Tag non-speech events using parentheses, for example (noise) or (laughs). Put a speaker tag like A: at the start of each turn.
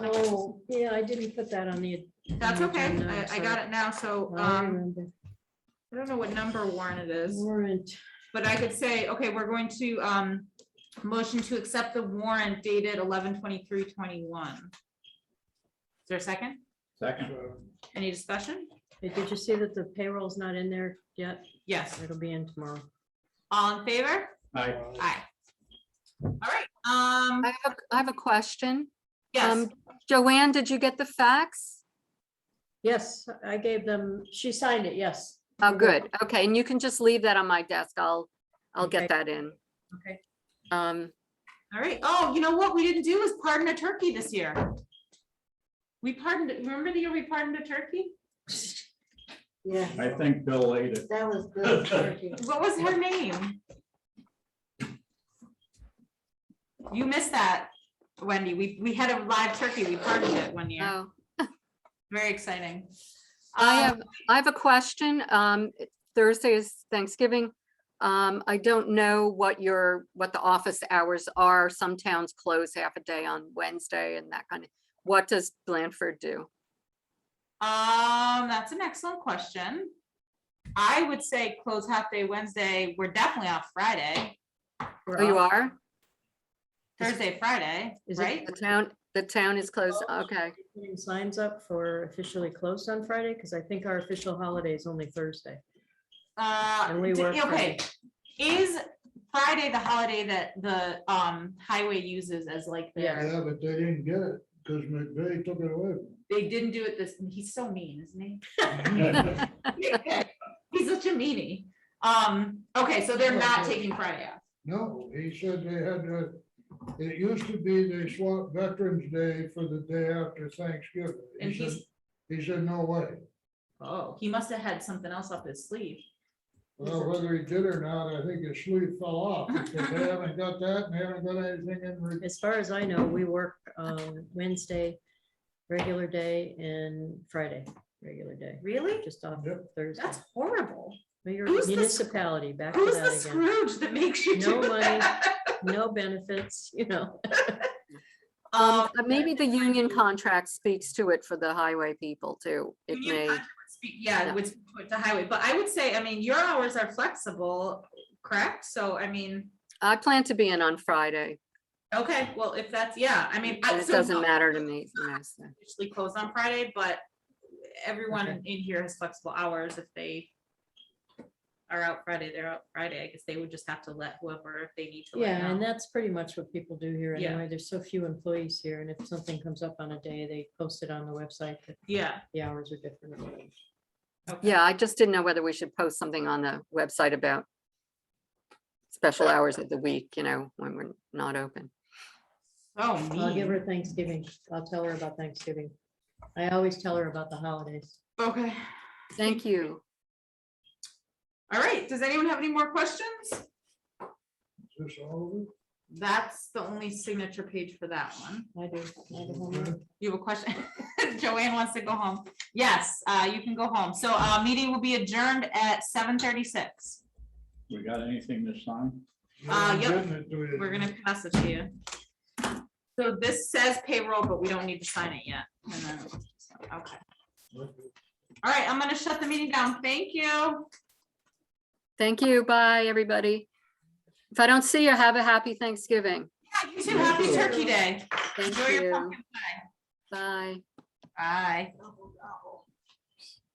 A: Oh, yeah, I didn't put that on the.
B: That's
A: on the
B: okay.
A: agenda,
B: I, I
A: sorry.
B: got it now. So,
A: I
B: um,
A: remember.
B: I don't know what number warrant it is,
A: Warrant,
B: but I could say, okay, we're going to, um, motion to accept the warrant dated eleven twenty-three twenty-one. Is there a second?
C: Second.
B: Any discussion?
A: Hey, did you see that the payroll's not in there yet?
B: Yes.
A: It'll be in tomorrow.
B: All in favor?
C: Aye.
B: Aye. All right, um,
D: I have, a- I have a question.
B: yes,
D: Um, Joanne, did you get the fax?
A: Yes, I gave them, she signed it, yes.
D: Oh, good. Okay, and you can just leave that on my desk. I'll, I'll
A: Okay.
D: get that in.
B: Okay.
D: Um,
B: all right. Oh, you know what? We didn't do is pardon a turkey this year. We pardoned, remember the year we pardoned a turkey?
E: Yeah,
C: I think Bill ate it.
E: that was good. turkey.
B: What was her name? You missed that, Wendy. We, we had a live turkey. We pardoned it one year.
D: oh,
B: Very exciting.
A: Oh,
D: I
B: Um,
D: have, I have a question. Um, Thursday is Thanksgiving. Um, I don't know what your, what the office hours are. Some towns close half a day on Wednesday and that kind of, what does Blandford do?
B: Um, that's an excellent question. I would say close half day Wednesday. We're definitely off Friday,
D: Oh, you
B: Um,
D: are?
B: Thursday, Friday,
A: Is it-
B: right?
D: The town, the town is closed.
B: Oh.
A: Closed.
D: Okay,
A: Putting Signs up for officially closed on Friday, because I think our official holiday is only Thursday.
B: Uh,
A: And we
B: d-
A: work
B: okay. Is Friday the holiday that the, um, highway uses as like their,
F: Yeah, but they didn't get it, because McVeigh took it away.
B: they didn't do it this, he's so mean, isn't he?
D: (laughs)
B: (laughs) He's such a meanie. Um, okay, so they're not taking Friday off.
F: No, he said they had to, it used to be they swapped Veterans Day for the day after Thanksgiving. He
B: And
F: said-
B: he's,
F: He said, no way.
B: oh, he must have had something else up his sleeve.
F: Well, whether he did or not, I think his sleeve fell off, because they haven't got that, and they haven't got anything in. re-
A: As far as I know, we work um, Wednesday, regular day, and Friday, regular day,
B: Really?
A: just off
F: Yep.
A: Thursday.
B: That's horrible.
A: But your
B: who's the sc-
A: Municipality, back to
B: Who's the
A: that again.
B: Scrooge that makes you
A: No
B: do
A: money.
B: that?
A: No benefits, (laughs) you know.
B: Um,
D: Uh, maybe the union contract speaks to it for the highway people too. It
B: Union
D: may.
B: contract speak- Yeah,
D: Yeah.
B: with, with the highway, but I would say, I mean, your hours are flexible, correct? So I mean,
D: I plan to be in on Friday.
B: okay, well, if that's, yeah, I mean. I-
D: but It
B: so
D: doesn't
B: no,
D: matter to me. you know, so.
B: Usually closed on Friday, but everyone
A: Okay.
B: in here has flexible hours if they are out Friday, they're out Friday. I guess they would just have to let whoever if they need to. let
A: Yeah, and
B: know.
A: that's pretty much what people do here
B: Yeah.
A: anyway. There's so few employees here, and if something comes up on a day, they post it on the website that
B: Yeah.
A: the hours are different.
B: okay.
D: Yeah, I just didn't know whether we should post something on the website about special hours of the week, you know, when we're not open.
B: So
A: I'll give
B: mean.
A: her Thanksgiving. I'll tell her about Thanksgiving. I always tell her about the holidays.
B: Okay.
D: Thank you.
B: All right. Does anyone have any more questions?
F: Is this all
B: That's the only signature page for that one.
A: I do. I have a
F: of it?
A: homework.
B: You have a question? (laughs) Joanne wants to go home. Yes, uh, you can go home. So, uh, meeting will be adjourned at seven thirty-six.
C: We got anything this time?
B: Uh, yep.
F: Getting it to you.
B: We're gonna pass it to you. So this says payroll, but we don't need to sign it yet. And then- Okay. All right, I'm gonna shut the meeting down. Thank you.
D: Thank you. Bye, everybody. If I don't see you, have a happy Thanksgiving.
B: Yeah, you too. Happy Turkey Day.
D: Thank
B: Enjoy your
D: you.
B: pumpkin.
D: Bye.
B: Bye.
E: Oh,